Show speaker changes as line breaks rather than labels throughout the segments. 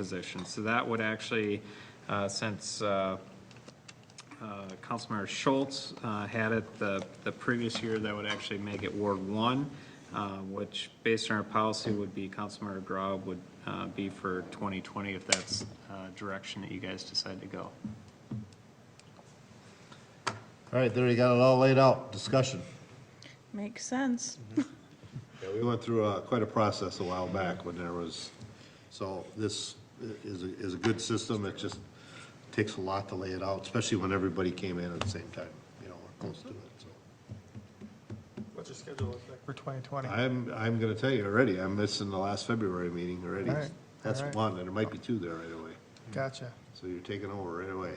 position. So that would actually, uh, since uh, uh, Councilmember Schultz uh, had it the, the previous year, that would actually make it Ward One, uh, which based on our policy would be Councilmember Grau would uh, be for 2020 if that's uh, direction that you guys decide to go.
All right, there you got it all laid out, discussion.
Makes sense.
Yeah, we went through uh, quite a process a while back when there was, so this is, a- is a good system, it just takes a lot to lay it out, especially when everybody came in at the same time, you know, we're close to it, so.
What's your schedule look like for 2020?
I'm, I'm gonna tell you already, I'm missing the last February meeting already.
All right,
That's
all right.
one, and there might be two there right away,
Gotcha.
so you're taking over right away.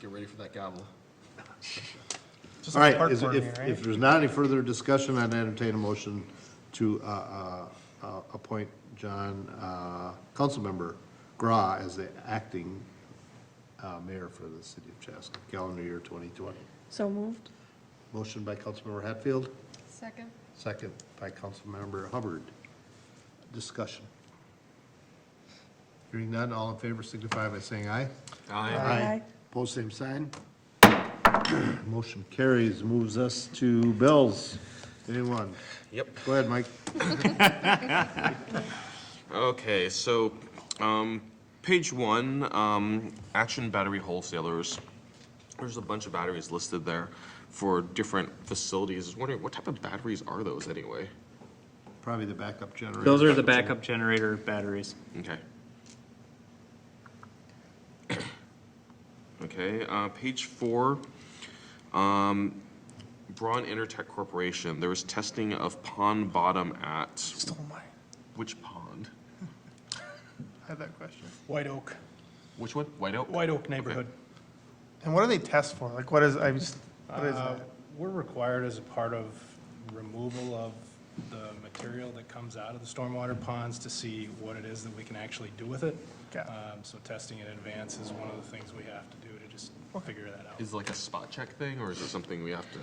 Get ready for that gobble.
Just
All
like
right,
park
is-
board
if,
meeting,
if
right?
there's not any further discussion, I'd entertain a motion to, uh, uh, uh, appoint John, uh, Councilmember Gra as the acting, uh, mayor for the city of Chaska, calendar year twenty twenty.
So moved.
Motion by Councilmember Hatfield,
Second.
second by Councilmember Hubbard. Discussion. Hearing none, all in favor signify by saying aye.
Aye.
Pose same sign. Motion carries, moves us to bills. Anyone?
Yep.
Go ahead, Mike.
Okay, so, um, page one, um, Action Battery Wholesalers. There's a bunch of batteries listed there for different facilities. I was wondering, what type of batteries are those anyway?
Probably the backup generator.
Those are the backup generator batteries.
Okay. Okay, uh, page four, um, Braun Intertech Corporation, there was testing of pond bottom at,
Stole mine.
which pond?
I had that question. White Oak.
Which one? White Oak?
White Oak neighborhood.
And what do they test for? Like, what is, I just, what is
Uh,
that?
We're required as a part of removal of the material that comes out of the stormwater ponds to see what it is that we can actually do with it.
Okay.
Um, So testing in advance is one of the things we have to do to just figure that out.
Is it like a spot check thing, or is it something we have to?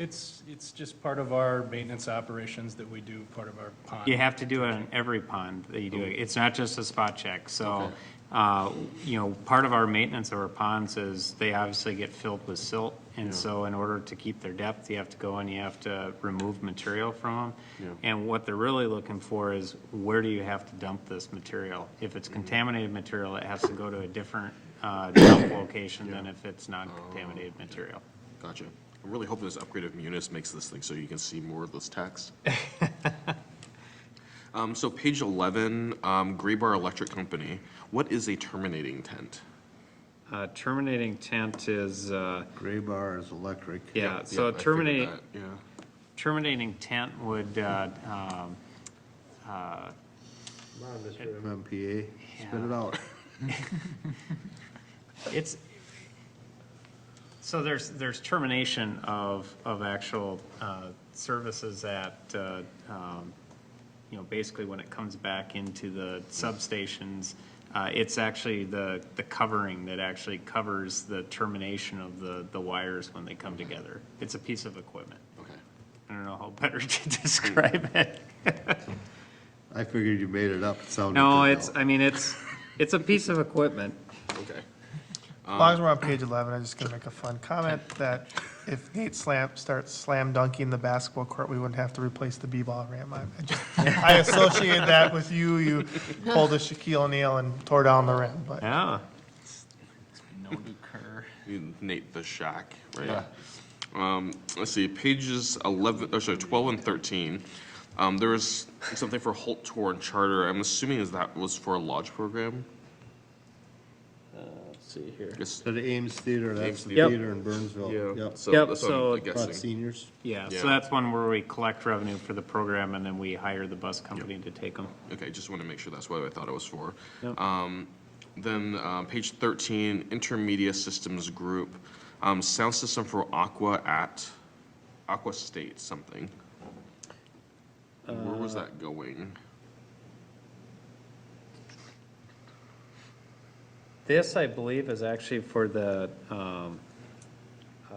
It's, it's just part of our maintenance operations that we do, part of our pond.
You have to do it in every pond that you do it. It's not just a spot check. So, uh, you know, part of our maintenance of our ponds is they obviously get filled with silt. And so in order to keep their depth, you have to go and you have to remove material from them. And what they're really looking for is where do you have to dump this material? If it's contaminated material, it has to go to a different uh, dump location than if it's non-contaminated material.
Gotcha. I'm really hoping this upgrade of Munis makes this thing so you can see more of this text. Um, so page eleven, um, Graybar Electric Company, what is a terminating tent?
Uh, Terminating tent is, uh,
Gray bar is electric.
yeah,
Yeah,
so
I figured
terminate,
that, Yeah.
terminating tent would, uh, um,
MMPA, spit it
Yeah.
out.
it's, so there's, there's termination of, of actual uh, services at, uh, um, you know, basically when it comes back into the substations, uh, it's actually the, the covering that actually covers the termination of the, the wires when they come together. It's a piece of equipment.
Okay.
I don't know how better to describe it.
I figured you made it up, it sounded.
No,
good,
it's,
though.
I mean, it's, it's a piece of equipment.
Okay.
um,
As long as we're on page 11, I'm just going to make a fun comment that if Nate Slam starts slam dunking the basketball court, we wouldn't have to replace the B-ball rim. I- I just- I associate that with you, you pulled a Shaquille O'Neal and tore down the rim, but.
Yeah.
Nate the Shack, right? Um, let's see, pages eleven, or sorry, twelve and thirteen. Um, there was something for Holt Tour and Charter. I'm assuming is that was for a lodge program.
See here.
Yes.
So the Ames Theater, that's
Ames
the
Yep.
theater in Burnsville. Yep.
So
Yep,
that's what
so-
I'm
About
About
guessing.
seniors.
Yeah,
Yeah.
so that's one where we collect revenue for the program and then we hire the bus company to take them.
Okay, just want to make sure that's what I thought it was for.
Yep.
Um, Then, uh, page thirteen, Intermedia Systems Group, um, sound system for Aqua at, Aqua State something. Where
Uh,
was that going?
This, I believe, is actually for the, um, uh,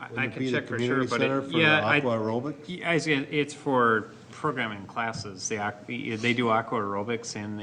I, I
Wouldn't it
can
be the
check for sure,
community
but it-
center for
yeah, I-
aqua aerobic?
Yeah, I was gonna- it's for programming classes. They, ac- they do aqua aerobics and